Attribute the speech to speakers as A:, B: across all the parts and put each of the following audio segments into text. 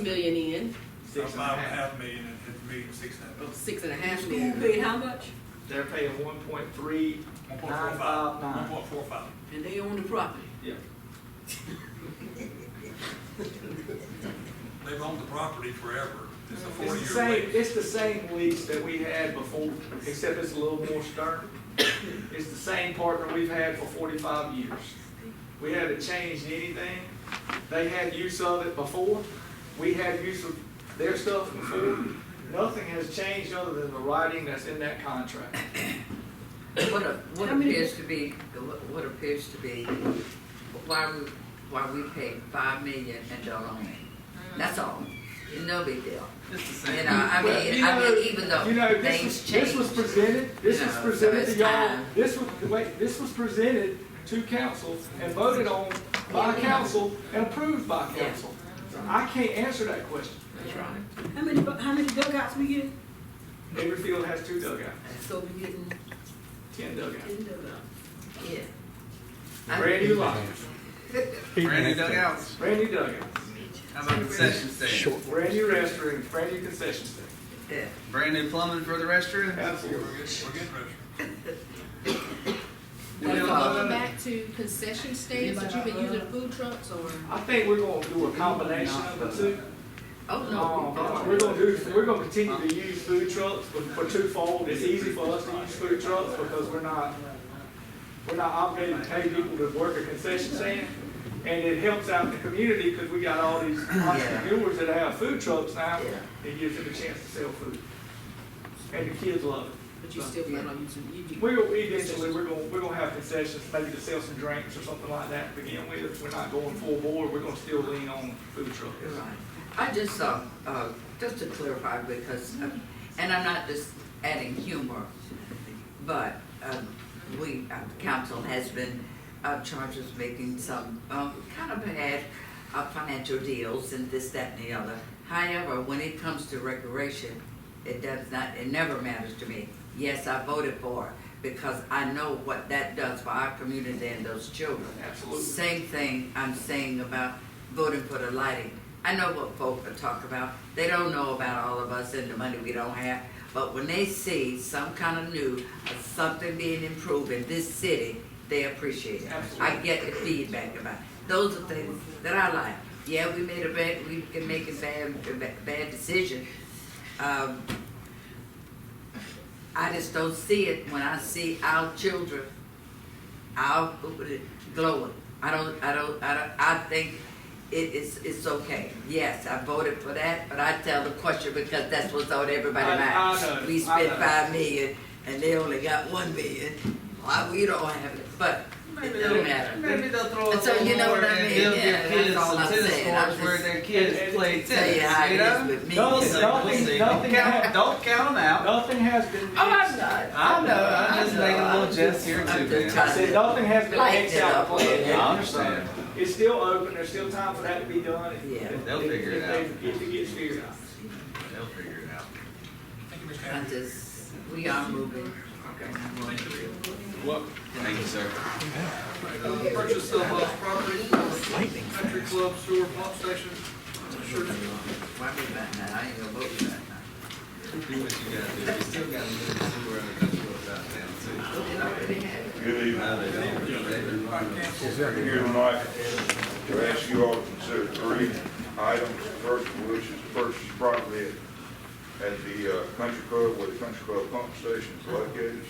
A: million in,
B: Six and a half million and it's million, six and a half.
A: six and a half
C: School
A: million,
C: paid how much?
D: They're paying one point three
B: One
D: nine
B: point four five.
D: five
B: One
D: nine.
B: point four five.
A: and they own the property.
D: Yeah.
B: They've owned the property forever. It's a
D: It's the
B: forty-year
D: same,
B: lease.
D: it's the same lease that we had before, except it's a little more stern. It's the same partner we've had for forty-five years. We haven't changed anything. They had use of it before, we had use of their stuff before. Nothing has changed other than the writing that's in that contract.
E: What, a- what
A: How many-
E: appears to be, what appears to be, why, we- why we paid five million and don't own
A: Mm.
E: it. That's all, no big deal.
F: It's the
E: You
F: same.
E: know, I
D: Well, you
E: mean, I
D: know-
E: mean, even though
D: You know, this
E: things
D: was, this was
E: change.
D: presented, this
E: You
D: was
E: know, so
D: presented to
E: it's
D: y'all,
E: time.
D: this was, wait, this was presented to council and voted on by council and approved by
E: Yeah.
D: council. I can't answer that question.
E: That's right.
C: How many, bu- how many dugouts we get?
D: Every field has two dugouts,
A: So we getting
D: ten dugouts.
A: ten dugouts.
E: Yeah. I-
D: Brand new lots,
F: Brand new dugouts,
D: brand new dugouts,
F: how about concession stand?
D: brand new restrooms, brand new concession stand.
E: Yeah.
F: Brand new plumbing for the restroom?
D: Absolutely.
B: We're getting, we're getting richer.
A: But
F: Yeah.
A: going back to concession stands, that you've been using the food trucks or?
D: I think we're gonna do a combination of the two.
E: Oh,
D: Um,
E: no.
D: We're gonna do, we're gonna continue to use food trucks for for twofold. It's easy for us to use food trucks because we're not, we're not obligated to pay people to work a concession stand. And it helps out the community because we got all these entrepreneurs that have food trucks now.
E: Yeah.
D: It gives them a chance to sell food. And the kids love it.
A: But you still plan on using, you do.
D: We're, we eventually, we're gonna, we're gonna have concessions, maybe to sell some drinks or something like that to begin with. We're not going full board. We're gonna still lean on food trucks.
E: You're right. I just saw, uh, just to clarify, because, uh, and I'm not just adding humor, but, um, we, uh, council has been, uh, charged with making some, um, kind of bad, uh, financial deals and this, that, and the other. However, when it comes to recreation, it does not, it never matters to me. Yes, I voted for it, because I know what that does for our community and those children.
D: Absolutely.
E: Same thing I'm saying about voting for the lighting. I know what folk are talking about. They don't know about all of us and the money we don't have. But when they see some kind of new, uh, something being improved in this city, they appreciate it. I
D: Absolutely.
E: get the feedback about, it. those are things that I like. Yeah, we made a bad, we can make a bad, a ba- bad decision. Um, I just don't see it when I see our children I'll glow it. I don't, I don't, I don't, I think it is, it's okay. Yes, I voted for that, but I tell the question because that's what's on everybody's
D: I- I
E: mind.
D: know,
E: We
D: I
E: spent
D: know.
E: five million and they only got one million. Why, we don't have it, but it doesn't matter.
F: Maybe they'll throw
E: So you know what I mean?
F: Build
E: Yeah,
F: your
E: that's
F: kids
E: all
F: some
E: I'm
F: tennis
E: saying. I'm
F: courts where
E: just-
F: their kids play
E: Tell you how
F: tennis, you
E: it is
F: know?
E: with me.
D: No,
F: We'll see, we'll
D: Nothing-
F: see.
D: nothing
F: Don't count,
D: happened.
F: don't count 'em out.
D: Nothing has been.
E: Oh, I'm not.
F: I know, I'm
E: I
F: just
E: know.
F: making a little
E: I'm
F: jest here
E: I'm just
F: too,
D: I
F: man.
E: trying
D: said,
E: to-
D: nothing has been
E: Lighten
D: fixed
E: it
D: out.
E: up a little
F: bit. I understand.
D: It's still open, there's still time for that to be done. if-
E: Yeah.
D: if-
F: They'll figure it
D: if they- If it gets figured out.
F: They'll figure it out.
B: Thank you, Mr.
E: I
B: Hammond.
E: just, we are moving. Okay.
F: Thank you, sir.
G: Purchase of uh, property, country club, sewer pump station, church
E: Why me back now? I ain't gonna vote for that now.
F: Do what you gotta do, you still gotta move somewhere in the country without
E: They already have it.
H: Good evening.
F: town too. They don't.
H: I'm here tonight to ask you all to consider three items. First, of which is purchase property at- at the uh, country club where the country club pump station is located.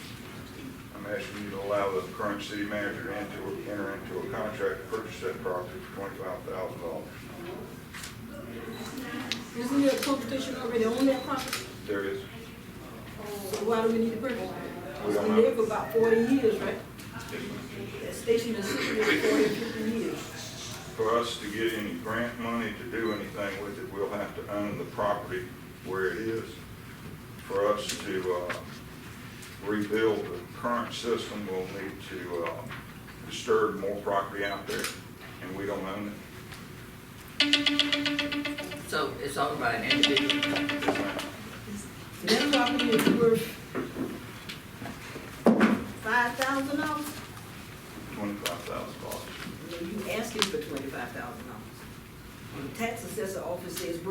H: I'm asking you to allow the current city manager to enter- enter into a contract to purchase that property for twenty-five thousand dollars.
C: Isn't there competition already on that property?
H: There is,
C: So why do we need to purchase it?
H: We
C: It's
H: don't
C: been
H: know.
C: there for about forty years, right? That station is sitting there for 40, 50 years.
H: for us to get any grant money to do anything with it, we'll have to own the property where it is. For us to uh, rebuild the current system, we'll need to uh, disturb more property out there, and we don't own it.
E: So it's all about an individual.
C: That property is worth five thousand dollars?
H: Twenty-five thousand dollars.
C: You asking for twenty-five thousand dollars. The tax assessor office says we're